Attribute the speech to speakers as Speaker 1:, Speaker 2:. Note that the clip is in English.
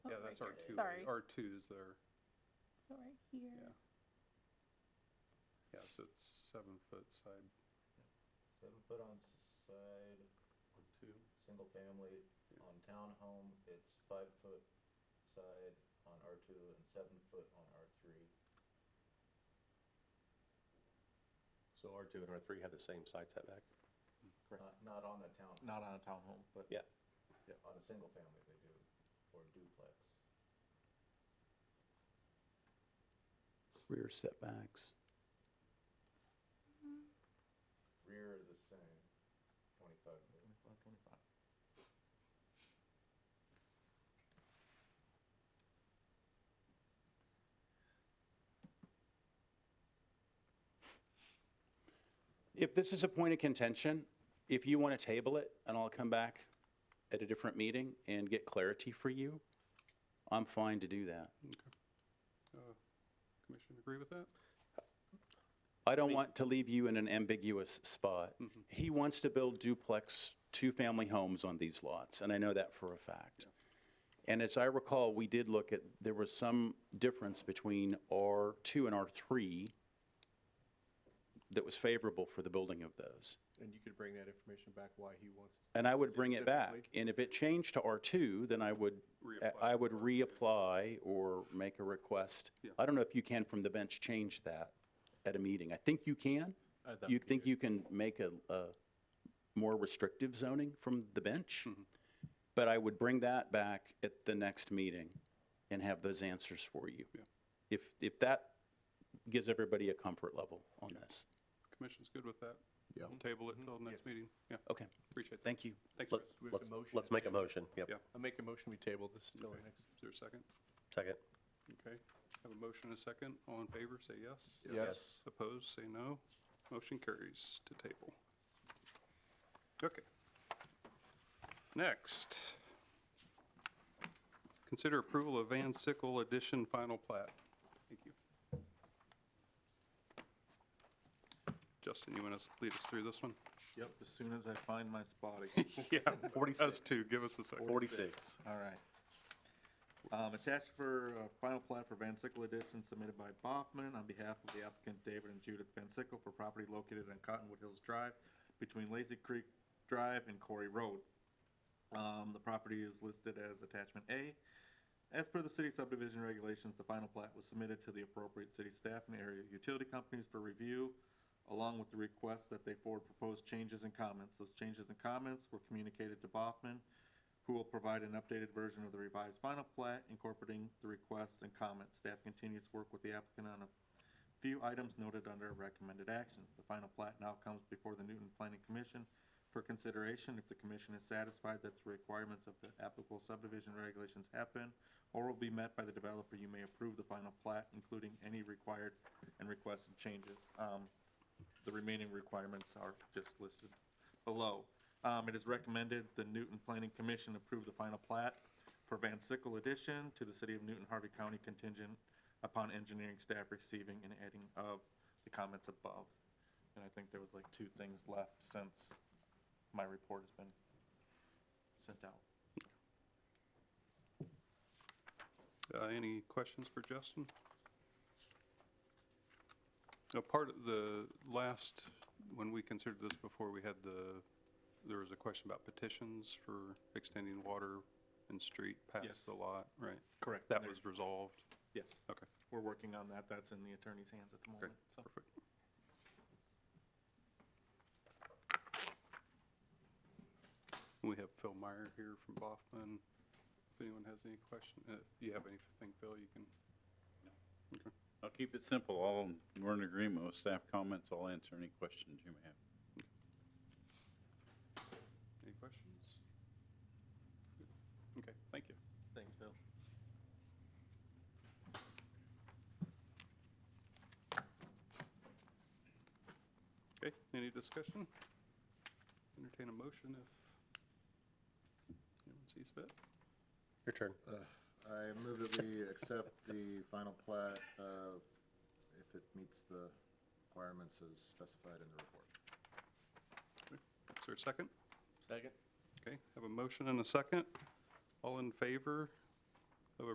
Speaker 1: two,
Speaker 2: Oh, Sorry.
Speaker 1: R two's there,
Speaker 2: So right here.
Speaker 1: yeah. Yeah, so it's seven foot side,
Speaker 3: Seven foot on s- side,
Speaker 4: on two.
Speaker 3: single family,
Speaker 1: Yeah.
Speaker 3: on townhome, it's five foot side on R two and seven foot on R three.
Speaker 4: So R2 and R3 have the same side setback? Correct.
Speaker 3: Not, not on a town,
Speaker 5: Not on a townhome, but.
Speaker 4: Yeah.
Speaker 3: on a single family they do, or duplex.
Speaker 6: rear setbacks.
Speaker 3: Rear is the same, twenty-five foot.
Speaker 5: Twenty-five, twenty-five.
Speaker 6: If this is a point of contention, if you want to table it and I'll come back at a different meeting and get clarity for you, I'm fine to do that.
Speaker 1: uh, commission agree with that?
Speaker 6: I don't want to leave you in an ambiguous spot. He wants to build duplex, two-family homes on these lots, and I know that for a fact. And as I recall, we did look at, there was some difference between R2 and R3 that was favorable for the building of those.
Speaker 4: And you could bring that information back why he wants.
Speaker 6: And I would bring it back.
Speaker 4: Specifically?
Speaker 6: And if it changed to R2, then I would,
Speaker 1: Reapply
Speaker 6: I would
Speaker 1: to R2.
Speaker 6: reapply or make a request.
Speaker 1: Yeah.
Speaker 6: I don't know if you can from the bench change that at a meeting. I think you can.
Speaker 4: Uh, that
Speaker 6: You
Speaker 4: would be
Speaker 6: think
Speaker 4: good.
Speaker 6: you can make a, a more restrictive zoning from the bench?
Speaker 4: Mm-hmm.
Speaker 6: But I would bring that back at the next meeting and have those answers for you.
Speaker 1: Yeah.
Speaker 6: If, if that gives everybody a comfort level on this.
Speaker 1: Commission's good with that?
Speaker 7: Yeah.
Speaker 1: We'll Table it until next meeting, yeah,
Speaker 6: Okay,
Speaker 1: appreciate that.
Speaker 6: thank you.
Speaker 1: Thanks,
Speaker 4: Let-
Speaker 1: Chris. Is
Speaker 4: Let's, let's make a motion, yep.
Speaker 1: Yeah.
Speaker 5: I make a motion, we table this till our
Speaker 1: Okay.
Speaker 5: next.
Speaker 1: there a second?
Speaker 4: Second.
Speaker 1: Okay, have a motion and a second, all in favor, say yes.
Speaker 7: Yes.
Speaker 1: Opposed, say no. Motion carries to table. Okay. Next. Consider approval of Van Sickle Edition Final Plat. Thank you. Justin, you want to lead us through this one?
Speaker 5: Yep, as soon as I find my spot again.
Speaker 1: Yeah, us two, give us a second.
Speaker 4: 46.
Speaker 5: All right. Um, attached for, uh, final plat for Van Sickle Edition submitted by Baughman on behalf of the applicant David and Judith Van Sickle for property located on Cottonwood Hills Drive between Lazy Creek Drive and Corey Road. Um, the property is listed as attachment A. As per the city subdivision regulations, the final plat was submitted to the appropriate city staff and area utility companies for review, along with the request that they forward proposed changes and comments. Those changes and comments were communicated to Baughman, who will provide an updated version of the revised final plat incorporating the requests and comments. Staff continues to work with the applicant on a few items noted under recommended actions. The final plat now comes before the Newton Planning Commission for consideration. If the commission is satisfied that the requirements of the applicable subdivision regulations have been or will be met by the developer, you may approve the final plat, including any required and requested changes. Um, the remaining requirements are just listed below. Um, it is recommended the Newton Planning Commission approve the final plat for Van Sickle addition to the city of Newton Harvey County contingent upon engineering staff receiving and adding of the comments above. And I think there was like two things left since my report has been sent out.
Speaker 1: Uh, Any questions for Justin? Now, part of the last, when we considered this before, we had the, there was a question about petitions for extending water and street past
Speaker 5: Yes.
Speaker 1: the lot, right?
Speaker 5: Correct.
Speaker 1: That was resolved.
Speaker 5: Yes,
Speaker 1: Okay,
Speaker 5: we're working on that. That's in the attorney's hands at the
Speaker 1: great,
Speaker 5: moment, so.
Speaker 1: perfect. We have Phil Meyer here from Baughman. If anyone has any question, uh, if you have anything, Phil, you can.
Speaker 8: I'll keep it simple. All, we're in agreement with staff comments. I'll answer any questions you may have.
Speaker 1: Any questions? Good. Okay, thank you.
Speaker 5: Thanks, Phil.
Speaker 1: Okay, any discussion? Entertain a motion if anyone sees fit.
Speaker 4: Your turn.
Speaker 3: I move that we accept the final plat, uh, if it meets the requirements as specified in the report.
Speaker 1: Is there a second?
Speaker 5: Second?
Speaker 1: Okay, have a motion and a second. All in favor,